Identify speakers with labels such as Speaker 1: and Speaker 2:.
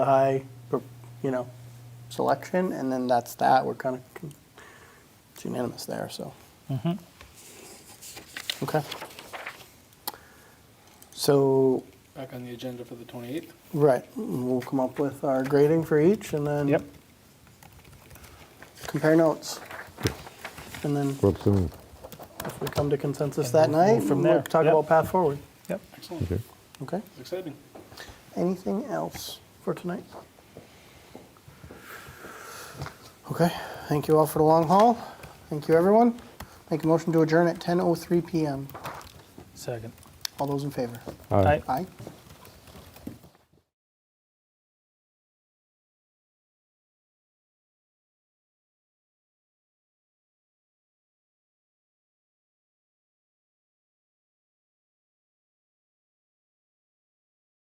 Speaker 1: I, you know, selection, and then that's that. We're kind of, it's unanimous there, so. Okay. So,
Speaker 2: back on the agenda for the 28th.
Speaker 1: right, we'll come up with our grading for each and then.
Speaker 2: Yep.
Speaker 1: Compare notes. And then
Speaker 3: What's in,
Speaker 1: if we come to consensus
Speaker 2: And
Speaker 1: that
Speaker 2: we'll move
Speaker 1: night,
Speaker 2: from
Speaker 1: from
Speaker 2: there.
Speaker 1: there, talk
Speaker 2: Yep.
Speaker 1: about path forward.
Speaker 2: Yep. Excellent.
Speaker 3: okay.
Speaker 1: Okay.
Speaker 2: It's exciting.
Speaker 1: Anything else for tonight? Okay, thank you all for the long haul. Thank you, everyone. Make a oh motion to adjourn at 10:03 PM.
Speaker 4: Second.
Speaker 1: All those in favor?
Speaker 3: All right.
Speaker 1: Aye.